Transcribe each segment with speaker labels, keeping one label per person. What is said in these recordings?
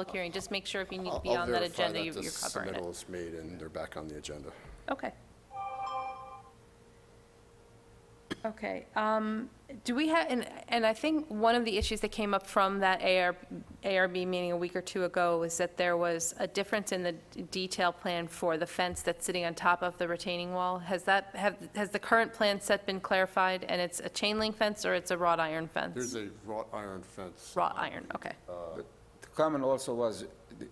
Speaker 1: public hearing, just make sure if you need to
Speaker 2: I'll
Speaker 1: be
Speaker 2: I'll
Speaker 1: on that
Speaker 2: verify
Speaker 1: agenda,
Speaker 2: that
Speaker 1: you-
Speaker 2: the
Speaker 1: you're covering
Speaker 2: submittal
Speaker 1: it.
Speaker 2: is made and they're back on the agenda.
Speaker 1: Okay. Okay, um, do we have, and, and I think one of the issues that came up from that AR, ARB meeting a week or two ago was that there was a difference in the detail plan for the fence that's sitting on top of the retaining wall. Has that, have, has the current plan set been clarified, and it's a chain link fence or it's a wrought iron fence?
Speaker 2: There's a wrought iron fence.
Speaker 1: Wrought iron, okay.
Speaker 3: The comment also was, the-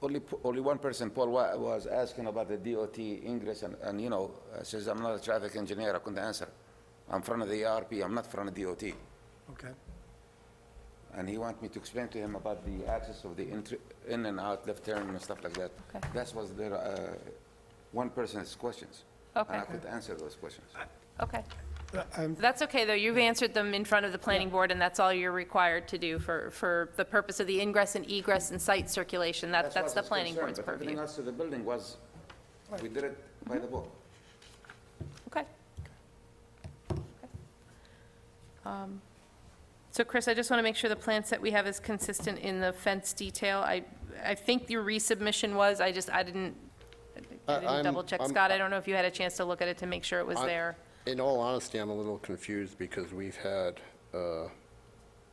Speaker 3: only, p- only one person, Paul, wa- was asking about the DOT ingress, and, and, you know, I says, I'm not a traffic engineer, I couldn't answer. I'm from the ARP, I'm not from the DOT.
Speaker 4: Okay.
Speaker 3: And he want me to explain to him about the access of the entry, in and out, left turn and stuff like that.
Speaker 1: Okay.
Speaker 3: That was their, uh, one person's questions.
Speaker 1: Okay.
Speaker 3: And I could answer those questions.
Speaker 2: Uh,
Speaker 1: Okay.
Speaker 4: Uh, I'm-
Speaker 1: That's okay, though. You've answered them in front of the planning board, and that's all you're required to do for, for the purpose of the ingress and egress and site circulation. That, that's
Speaker 3: what
Speaker 1: the
Speaker 3: was
Speaker 1: planning
Speaker 3: concerned,
Speaker 1: board's
Speaker 3: but Everything
Speaker 1: purview.
Speaker 3: else to the building was, we did it by the book.
Speaker 1: Okay. Um, So Chris, I just want to make sure the plan set we have is consistent in the fence detail. I, I think your resubmission was, I just, I didn't, I
Speaker 2: I-
Speaker 1: didn't
Speaker 2: I'm-
Speaker 1: double check.
Speaker 2: I'm-
Speaker 1: Scott, I don't know if you had a chance to look at it to make sure it was
Speaker 2: I-
Speaker 1: there.
Speaker 2: In all honesty, I'm a little confused because we've had, uh,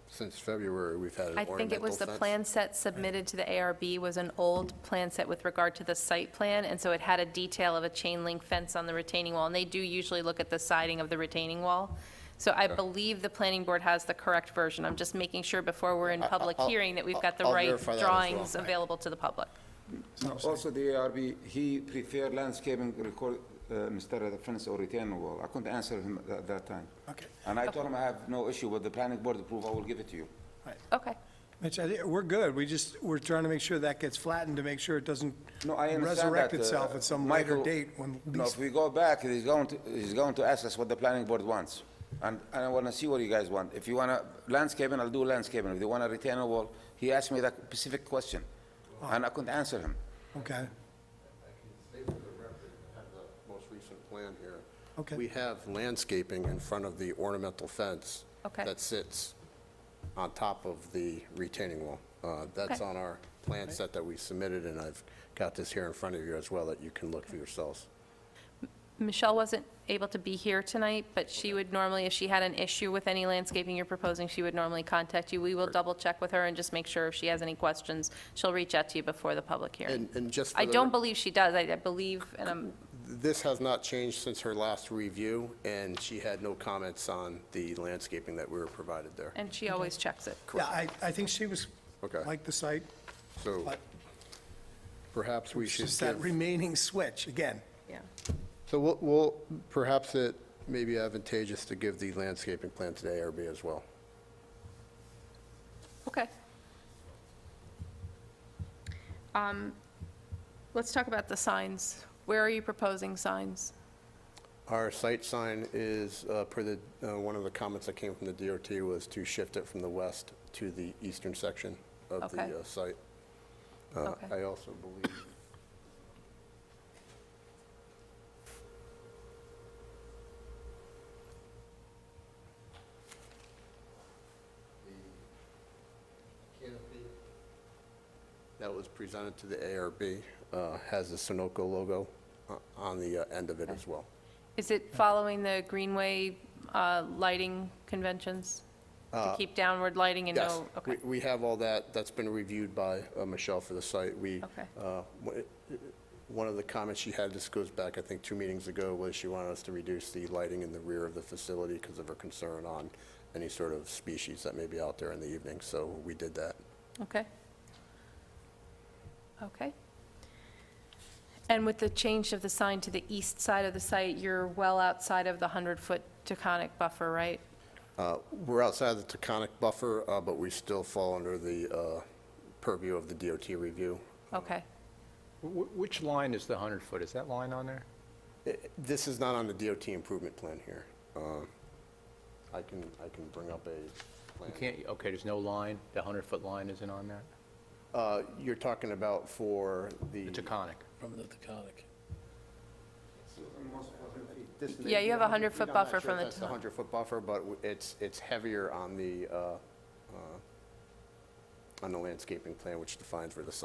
Speaker 2: since February, we've had an
Speaker 1: I
Speaker 2: ornamental
Speaker 1: think it was the
Speaker 2: fence.
Speaker 1: plan set submitted to the ARB was an old plan set with regard to the site plan, and so it had a detail of a chain link fence on the retaining wall, and they do usually look at the siding of the retaining wall. So I believe the planning board has the correct version. I'm just making sure before we're in public
Speaker 2: I'll-
Speaker 1: hearing that we've got the
Speaker 2: I'll
Speaker 1: right
Speaker 2: verify that as well.
Speaker 1: drawings available to the public.
Speaker 3: No, Also, the ARB, he preferred landscaping record, uh, instead of the fence or retaining wall. I couldn't answer him at that- that time.
Speaker 4: Uh, Okay.
Speaker 3: And I told him I have no issue with the planning board approval, I will give it to you.
Speaker 1: Okay,
Speaker 4: Mitch, I think we're good. We just, we're trying to make sure that gets flattened to make sure it doesn't
Speaker 3: No, I understand that.
Speaker 4: resurrect
Speaker 3: uh,
Speaker 4: itself at some later
Speaker 3: Michael,
Speaker 4: date when
Speaker 3: No, if
Speaker 4: lease,
Speaker 3: we go back, he's going to, he's going to ask us what the planning board wants. And and I want to see what you guys want. If you want to landscaping, I'll do landscaping. If you want a retaining wall, he asked me that specific question,
Speaker 4: Oh.
Speaker 3: and I couldn't answer him.
Speaker 4: okay?
Speaker 2: State for the record, I have the most recent plan here.
Speaker 4: Okay.
Speaker 2: We have landscaping in front of the ornamental fence.
Speaker 1: Okay.
Speaker 2: That sits on top of the retaining wall. Uh, That's
Speaker 1: Okay.
Speaker 2: on our plan set that we submitted, and I've got this here in front of you as well that you can look for yourselves.
Speaker 1: Michelle wasn't able to be here tonight, but she would normally, if she had an issue with any landscaping you're proposing, she would normally contact you. We will double-check with her and just make sure if she has any questions, she'll reach out to you before the public hearing.
Speaker 2: And and just for
Speaker 1: I
Speaker 2: the
Speaker 1: don't
Speaker 2: rec-
Speaker 1: believe she does. I I believe, and I'm,
Speaker 2: This has not changed since her last review, and she had no comments on the landscaping that we were provided there.
Speaker 1: and she always checks it.
Speaker 4: Yeah, I, I think she was,
Speaker 2: Okay.
Speaker 4: like the site,
Speaker 2: So
Speaker 4: but
Speaker 2: perhaps we
Speaker 4: it's
Speaker 2: should
Speaker 4: just that
Speaker 2: give,
Speaker 4: remaining switch, again.
Speaker 1: Yeah.
Speaker 2: so we'll- we'll, perhaps it may be advantageous to give the landscaping plan to the ARB as well.
Speaker 1: Okay. Um, Let's talk about the signs. Where are you proposing signs?
Speaker 2: Our site sign is, uh, per the, uh, one of the comments that came from the DRT was to shift it from the west to the eastern section of
Speaker 1: Okay.
Speaker 2: the uh, site. Uh,
Speaker 1: Okay.
Speaker 2: I also believe, that was presented to the ARB, uh, has the Sunoco logo uh, on the uh, end of it as well.
Speaker 1: Is it following the Greenway uh, lighting conventions? To keep downward lighting and
Speaker 2: Uh, Yes,
Speaker 1: no?
Speaker 2: we-
Speaker 1: okay.
Speaker 2: we have all that, that's been reviewed by uh, Michelle for the site. We,
Speaker 1: Okay.
Speaker 2: uh, w- one of the comments she had, this goes back, I think, two meetings ago, was she wanted us to reduce the lighting in the rear of the facility because of her concern on any sort of species that may be out there in the evening, so we did that.
Speaker 1: Okay. Okay. And with the change of the sign to the east side of the site, you're well outside of the 100-foot taconic buffer, right?
Speaker 2: Uh, We're outside the taconic buffer, uh, but we still fall under the uh, purview of the DOT review.
Speaker 1: Okay,
Speaker 5: Wh- Which line is the 100-foot? Is that line on there?
Speaker 2: I- This is not on the DOT improvement plan here. Uh, I can, I can bring up a plan.
Speaker 5: You can't, okay, there's no line, the 100-foot line isn't on that?
Speaker 2: Uh, You're talking about for the...
Speaker 5: The Taconic.
Speaker 1: Yeah, you have a 100-foot buffer from the
Speaker 2: I'm not sure if that's the 100-foot buffer, but w- it's, it's heavier on the uh, uh, on the landscaping plan, which defines where the sign